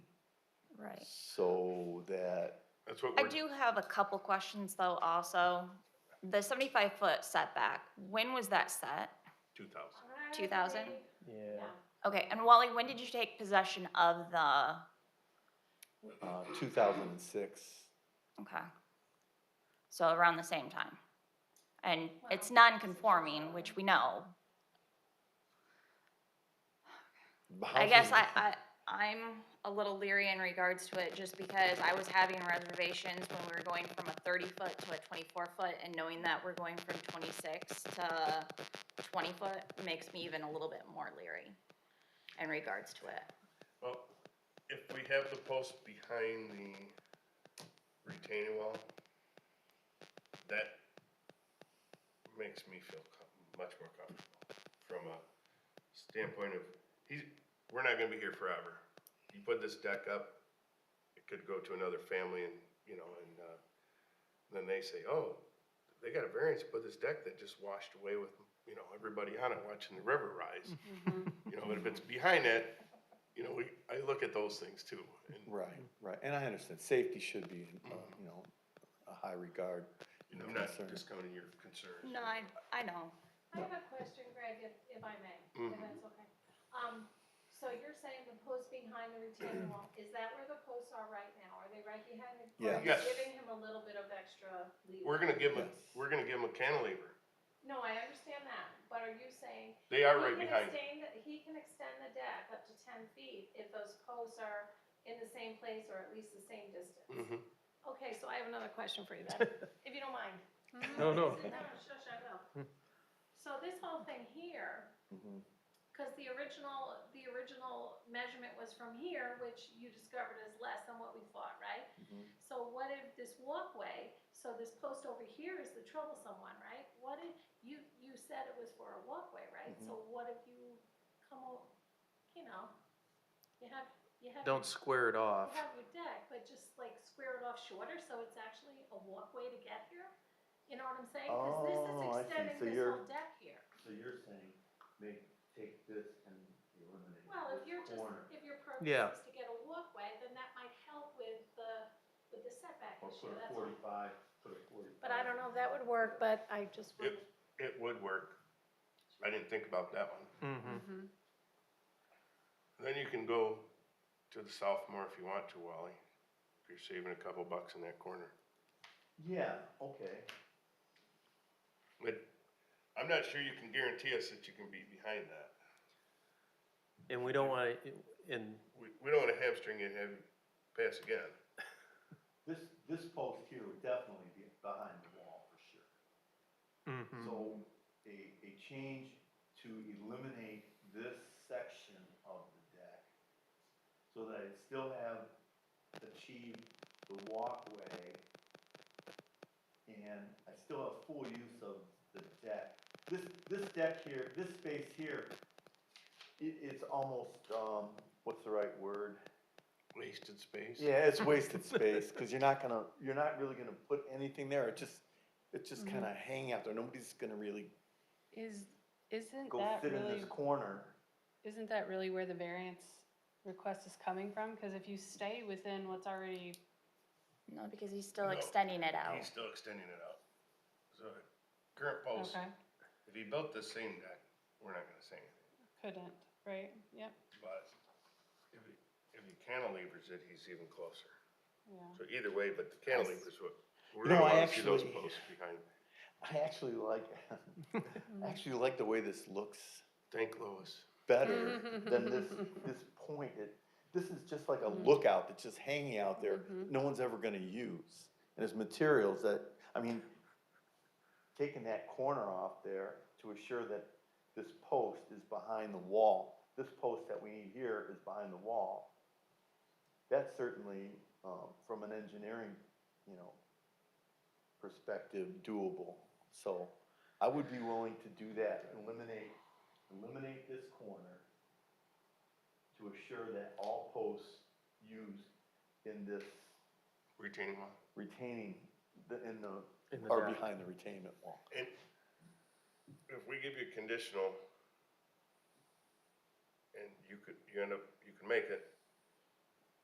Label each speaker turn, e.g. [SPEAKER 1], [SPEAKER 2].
[SPEAKER 1] Right.
[SPEAKER 2] so that,
[SPEAKER 3] That's what
[SPEAKER 1] I
[SPEAKER 3] we're,
[SPEAKER 1] do have a couple questions though also. The seventy-five foot setback, when was that set?
[SPEAKER 3] two thousand.
[SPEAKER 1] Two thousand?
[SPEAKER 2] yeah,
[SPEAKER 1] Okay, and Wally, when did you take possession of the,
[SPEAKER 2] uh, two thousand and six.
[SPEAKER 1] okay. So around the same time. And it's non-conforming, which we know. I guess I, I, I'm a little leery in regards to it just because I was having reservations when we were going from a thirty foot to a twenty-four foot and knowing that we're going from twenty-six to twenty foot makes me even a little bit more leery in regards to it.
[SPEAKER 3] Well, if we have the post behind the retaining wall, that makes me feel co- much more comfortable from a standpoint of, he's, we're not gonna be here forever. You put this deck up, it could go to another family and, you know, and, uh, then they say, oh, they got a variance to put this deck that just washed away with, you know, everybody on it watching the river rise. You know, but if it's behind that, you know, we, I look at those things too. And
[SPEAKER 2] Right, right, and I understand, safety should be, in, uh, you
[SPEAKER 4] Mm-hmm.
[SPEAKER 2] know, a high regard.
[SPEAKER 3] you know, I'm not
[SPEAKER 2] Concern.
[SPEAKER 3] discounting your concerns.
[SPEAKER 1] No, I, I know.
[SPEAKER 5] I have a question, Greg, if, if I may, if
[SPEAKER 3] Mhm.
[SPEAKER 5] that's okay. Um, so you're saying the post behind the retaining wall, is that where the posts are right now? Are they right behind it? Or are you
[SPEAKER 3] Yes.
[SPEAKER 5] Giving him a little bit of extra leeway?
[SPEAKER 3] We're gonna give them,
[SPEAKER 2] Yes.
[SPEAKER 3] we're gonna give them a cantilever.
[SPEAKER 5] No, I understand that, but are you saying?
[SPEAKER 3] They are
[SPEAKER 5] he
[SPEAKER 3] right
[SPEAKER 5] can
[SPEAKER 3] behind it.
[SPEAKER 5] extend the- He can extend the deck up to ten feet if those posts are in the same place or at least the same distance.
[SPEAKER 3] Mhm.
[SPEAKER 5] Okay, so I have another question for you then, if you don't mind.
[SPEAKER 4] No, Hmm. no.
[SPEAKER 5] No, shush, I will. So this whole thing here,
[SPEAKER 2] Mhm.
[SPEAKER 5] Because the original, the original measurement was from here, which you discovered is less than what we thought, right?
[SPEAKER 2] Mhm.
[SPEAKER 5] So what if this walkway, so this post over here is the troublesome one, right? What if, you, you said it was for a walkway, right? So
[SPEAKER 4] Mm-hmm.
[SPEAKER 5] what if you come, o- you know, you have, you have.
[SPEAKER 4] Don't square it
[SPEAKER 5] You
[SPEAKER 4] off.
[SPEAKER 5] have your deck, but just like square it off shorter, so it's actually a walkway to get here? You know what I'm saying? Because this is
[SPEAKER 2] Oh, I see.
[SPEAKER 5] extending
[SPEAKER 2] So
[SPEAKER 5] this
[SPEAKER 2] you're-
[SPEAKER 5] whole deck here.
[SPEAKER 6] So you're saying, make, take this and eliminate
[SPEAKER 5] Well, if
[SPEAKER 6] this
[SPEAKER 5] you're just,
[SPEAKER 6] corner.
[SPEAKER 5] if your purpose
[SPEAKER 4] Yeah.
[SPEAKER 5] is to get a walkway, then that might help with the, with the setback
[SPEAKER 6] Or
[SPEAKER 5] issue,
[SPEAKER 6] put a
[SPEAKER 5] that's all.
[SPEAKER 6] forty-five, put a forty-five.
[SPEAKER 5] But I don't know if that would work, but I just
[SPEAKER 3] It,
[SPEAKER 5] would,
[SPEAKER 2] Mm-hmm.
[SPEAKER 3] it would work. I didn't think about that one.
[SPEAKER 4] Mm-hmm.
[SPEAKER 3] Then you can go to the south more if you want to, Wally. If you're saving a couple bucks in that corner.
[SPEAKER 6] Yeah, okay.
[SPEAKER 3] But I'm not sure you can guarantee us that you can be behind that.
[SPEAKER 4] And we don't want to, and
[SPEAKER 3] We, we don't wanna hamstring it, and have you pass again.
[SPEAKER 6] This, this post here would definitely be behind the wall for sure.
[SPEAKER 2] Mm-hmm.
[SPEAKER 4] mhm.
[SPEAKER 6] So a, a change to eliminate this section of the deck so that it still have achieved the walkway and I still have full use of the deck. This, this deck here, this space here, it, it's almost, um, what's the right word?
[SPEAKER 3] Wasted space.
[SPEAKER 2] Yeah, it's wasted space, cause you're not gonna, you're not really gonna put anything there, it just, it's just
[SPEAKER 7] Mhm.
[SPEAKER 2] kinda
[SPEAKER 6] Mm-hmm.
[SPEAKER 2] hanging out there, nobody's gonna really
[SPEAKER 7] Is, isn't
[SPEAKER 6] Go
[SPEAKER 7] that
[SPEAKER 6] sit in
[SPEAKER 7] really,
[SPEAKER 6] this corner.
[SPEAKER 7] isn't that really where the variance request is coming from? Cause if you stay within what's already,
[SPEAKER 1] No, because he's still
[SPEAKER 3] No.
[SPEAKER 1] extending it out.
[SPEAKER 3] He's still extending it out. So, current post,
[SPEAKER 7] okay,
[SPEAKER 3] if he built the same deck, we're not gonna say anything.
[SPEAKER 7] couldn't, right? Yep,
[SPEAKER 3] But if he, if he cantilevers it, he's even closer.
[SPEAKER 7] yeah.
[SPEAKER 3] So either way, but the cantilever's what, we're
[SPEAKER 2] You
[SPEAKER 3] gonna
[SPEAKER 2] know, I
[SPEAKER 3] wanna see those
[SPEAKER 2] actually-
[SPEAKER 3] posts behind.
[SPEAKER 2] I actually like, I actually like the way this looks
[SPEAKER 3] Thank Lois.
[SPEAKER 2] better than this, this point. It, this is just like a lookout that's just hanging out there, no one's ever gonna use. And it's materials that, I mean, taking that corner off there to assure that this post is behind the wall, this post that we need here is behind the wall. That certainly, um, from an engineering, you know, perspective doable. So I would be willing to do that, eliminate, eliminate this corner to assure that all posts used in this
[SPEAKER 3] retaining wall.
[SPEAKER 2] retaining, the, in the,
[SPEAKER 4] In the
[SPEAKER 2] are
[SPEAKER 4] back.
[SPEAKER 2] behind the retainment wall.
[SPEAKER 3] And if we give you a conditional, and you could, you end up, you can make it,